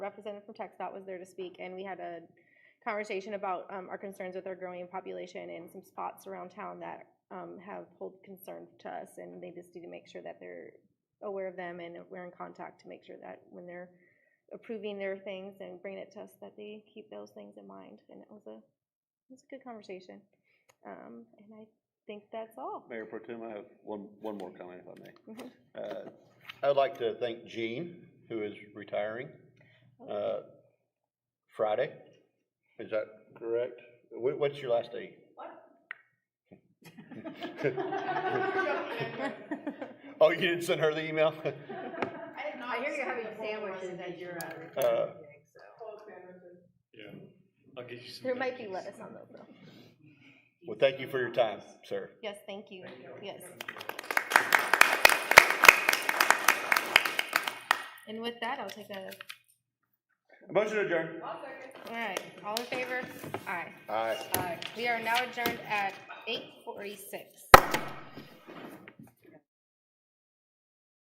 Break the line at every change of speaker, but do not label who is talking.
representative from TechStop was there to speak, and we had a conversation about um, our concerns with our growing population and some spots around town that um, have hold concern to us, and they just need to make sure that they're aware of them and we're in contact to make sure that when they're approving their things and bringing it to us, that they keep those things in mind. And it was a, it was a good conversation. Um, and I think that's all.
Mayor Pro Tem, I have one, one more comment if I
Mhm.
may. Uh, I would like to thank Jean, who is retiring, uh, Friday. Is that correct? Wha- what's your last day? Oh, you didn't send her the email?
I hear you're having sandwiches at your, uh,
Uh,
Yeah, I'll get you some.
There might be
veggies.
lettuce on those though.
Well, thank you for your time, sir.
Yes, thank you. Yes. And with that, I'll take a,
Motion adjourned.
all right, all in favor? Aye.
Aye.
Aye. We are now adjourned at eight forty-six.